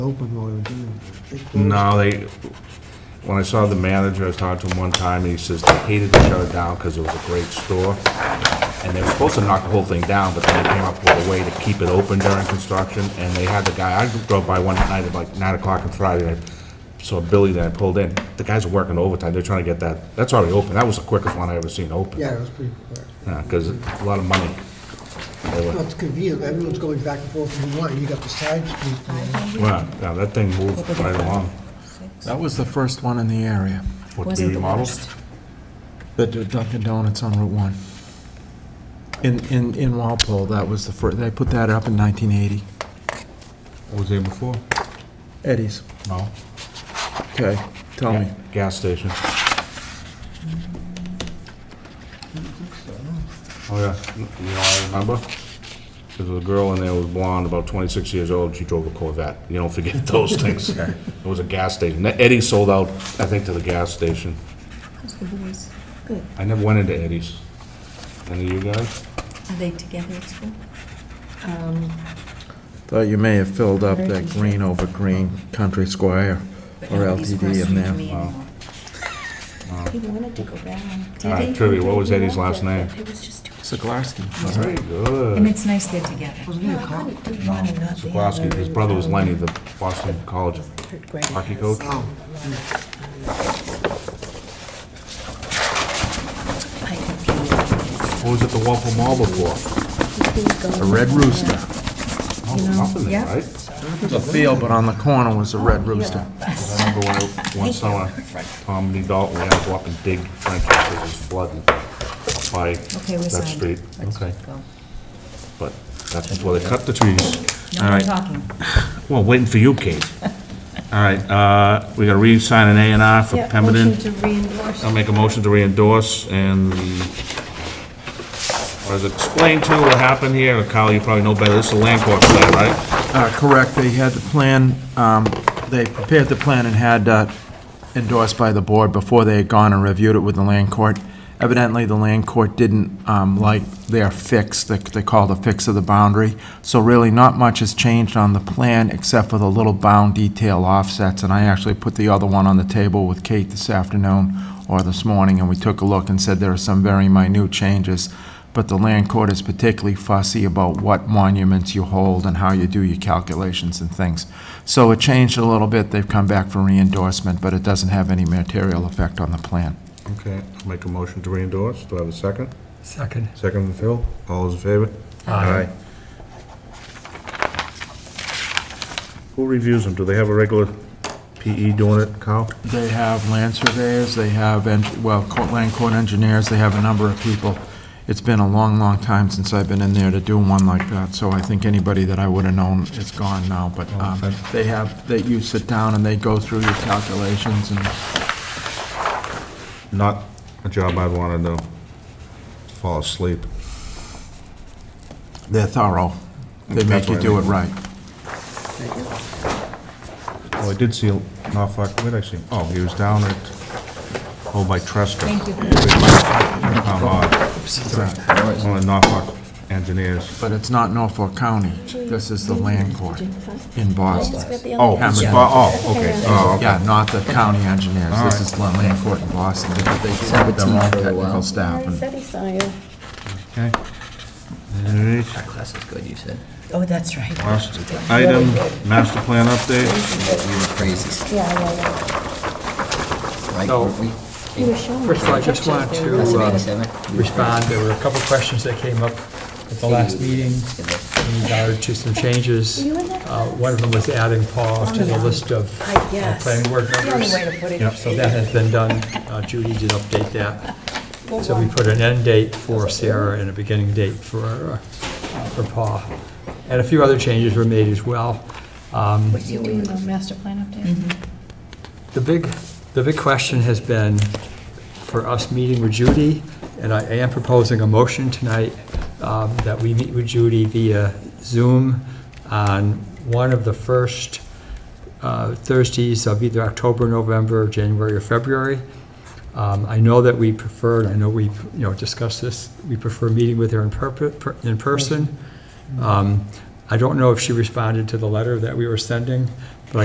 open while we were doing it. They closed. No, they, when I saw the manager, I was talking to him one time, and he says they hated to shut it down because it was a great store. And they were supposed to knock the whole thing down, but then they came up with a way to keep it open during construction, and they had the guy, I drove by one night at like nine o'clock on Friday, and I saw Billy that I pulled in, the guys were working overtime, they're trying to get that, that's already open, that was the quickest one I ever seen open. Yeah, it was pretty quick. because a lot of money. They were- Well, it's convenient, everyone's going back and forth from one, you got the side street Oh. there. Wow, yeah, that thing moved right along. That was the first one in the area, What, the Wasn't the remodels? worst. the d- Dunkin' Donuts on Route 1. In, in, in Walpole, that was the first, they put that up in 1980. What was there before? Eddie's. No. Okay, tell me. Gas station. Oh, yeah, you know, I remember, there was a girl in there who was blonde, about 26 years old, she drove a Corvette. You don't forget those things. It was a gas station. Eddie sold out, I think, to the gas station. How's the boys? Good. I never went into Eddie's. Any of you guys? Are they together at school? Thought you may have filled up that green over green Country Squire But or nobody's LTD in questioned there. me anymore. He wanted to go back. Did All right, he? trivia, what was He Eddie's last loved it, name? Uh, but It was just too. Seglarski. All right, good. And it's nice they're together. Wasn't he a cop? Sikorsky, his brother was Lenny, the Boston College hockey coach. Oh, I confused. What was at the Waffle Mall before? A Red Rooster. Oh, You know, nothing there, yeah. right? The field, but on the corner was a Red Oh, Rooster. I remember when, I- one summer, Tom and Dalton, we had to go up and dig trenches, it was flooding by Okay, we that signed. street. Let's Okay, go. but that's before they cut the trees. All No more right. talking. Well, waiting for you, Kate. All right, uh, we gotta re-sign an A and R for Yeah, Pemberton. motion to reendorse. I'll make a motion to re-endorse and the, or is it explain to what happened here, Kyle, you probably know better, this is a land court plan, right? Uh, Correct, they had the plan, um, they prepared the plan and had uh, endorsed by the board before they had gone and reviewed it with the land court. Evidently, the land court didn't um, like their fix, that they called a fix of the boundary. So really, not much has changed on the plan, except for the little bound detail offsets. And I actually put the other one on the table with Kate this afternoon or this morning, and we took a look and said there are some very minute changes but the land court is particularly fussy about what monuments you hold and how you do your calculations and things. So it changed a little bit, they've come back for re-endorsement, but it doesn't have any material effect on the plan. Okay, I'll make a motion to re-endorse, do I have a second? Second. Second from Phil, all those in favor? Aye. Who reviews them, do they have a regular PE doing it, Kyle? They have land surveyors, they have, en- well, co- land court engineers, they have a number of people. It's been a long, long time since I've been in there to do one like that, so I think anybody that I would have known is gone now, but um, Okay. they have, that you sit down and they go through your calculations and Not a job I'd wanna do, fall asleep. they're thorough. They make you do it right. thank you. Oh, I did see Norfolk, where'd I see him? Oh, he was down at, oh, by Tresca. Thank you. Um, uh, One of Norfolk engineers. But it's not Norfolk County. This is the land court in Boston. Oh, it's Hammerman. Bo- oh, okay, oh, okay. Yeah, not the county engineers. This is the land court in Boston. They they have their own technical staff. I and- said he saw you. Okay. All right. That class is good, you said. Oh, that's right. Last item, master plan update. We were crazy, Yeah, yeah, right? So- weren't we? yeah. You were showing me. First of all, I just pictures want there. to Class of uh, 87? We were respond, there were a couple of questions that came up at the last meeting in regard to some changes. You in there? Oh, Uh, One of them was adding Paul to the list of I uh, guess. planning board The only members. way to put it. Yep, So that has been done, Uh, Judy did update that. So we put an end date for Sarah and a beginning date for, uh, for Paul. And a few other changes were made as well. Um, Was he doing the master plan update? The big, the big question has been for us meeting with Judy, and I am proposing a motion tonight um, that we meet with Judy via Zoom on one of the first uh, Thursdays of either October, November, January, or February. Um, I know that we prefer, I know we, you know, discussed this, we prefer meeting with her in perp- per- in person. Um, I don't know if she responded to the letter that we were sending, but I